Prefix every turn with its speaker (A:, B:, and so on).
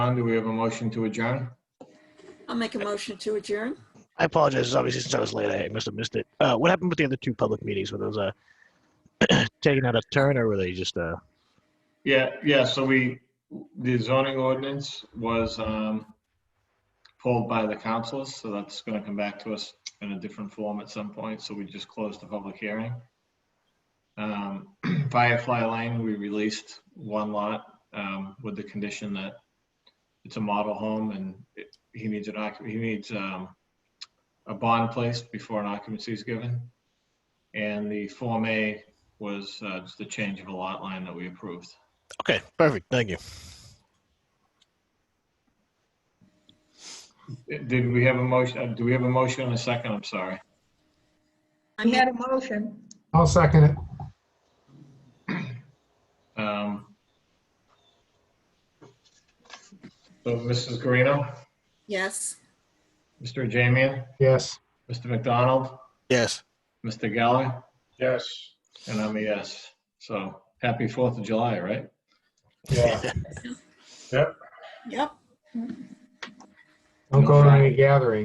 A: on, do we have a motion to adjourn?
B: I'll make a motion to adjourn.
C: I apologize. Obviously, since I was late, I must have missed it. Uh, what happened with the other two public meetings? Were those uh, taken out of turn, or were they just uh,
A: Yeah, yeah, so we, the zoning ordinance was um, pulled by the councils, so that's going to come back to us in a different form at some point, so we just closed the public hearing. Um, Firefly Lane, we released one lot um, with the condition that it's a model home and it- he needs an, occup- he needs um, a bond placed before an occupancy is given. And the Form A was uh, just the change of a lot line that we approved.
C: okay? Perfect. Thank you.
A: Did we have a motion, uh, do we have a motion and a second? I'm sorry.
B: I
D: He
B: make,
D: had a motion.
E: I'll second it.
A: Um, So Mrs. Guarino,
B: yes.
A: Mr. Jamian,
E: Yes.
A: Mr. McDonald,
C: Yes.
A: Mr. Geller,
E: Yes.
A: and I'm a yes. So happy Fourth of July, right?
E: Yeah.
B: Yep.
E: Don't go to any gatherings.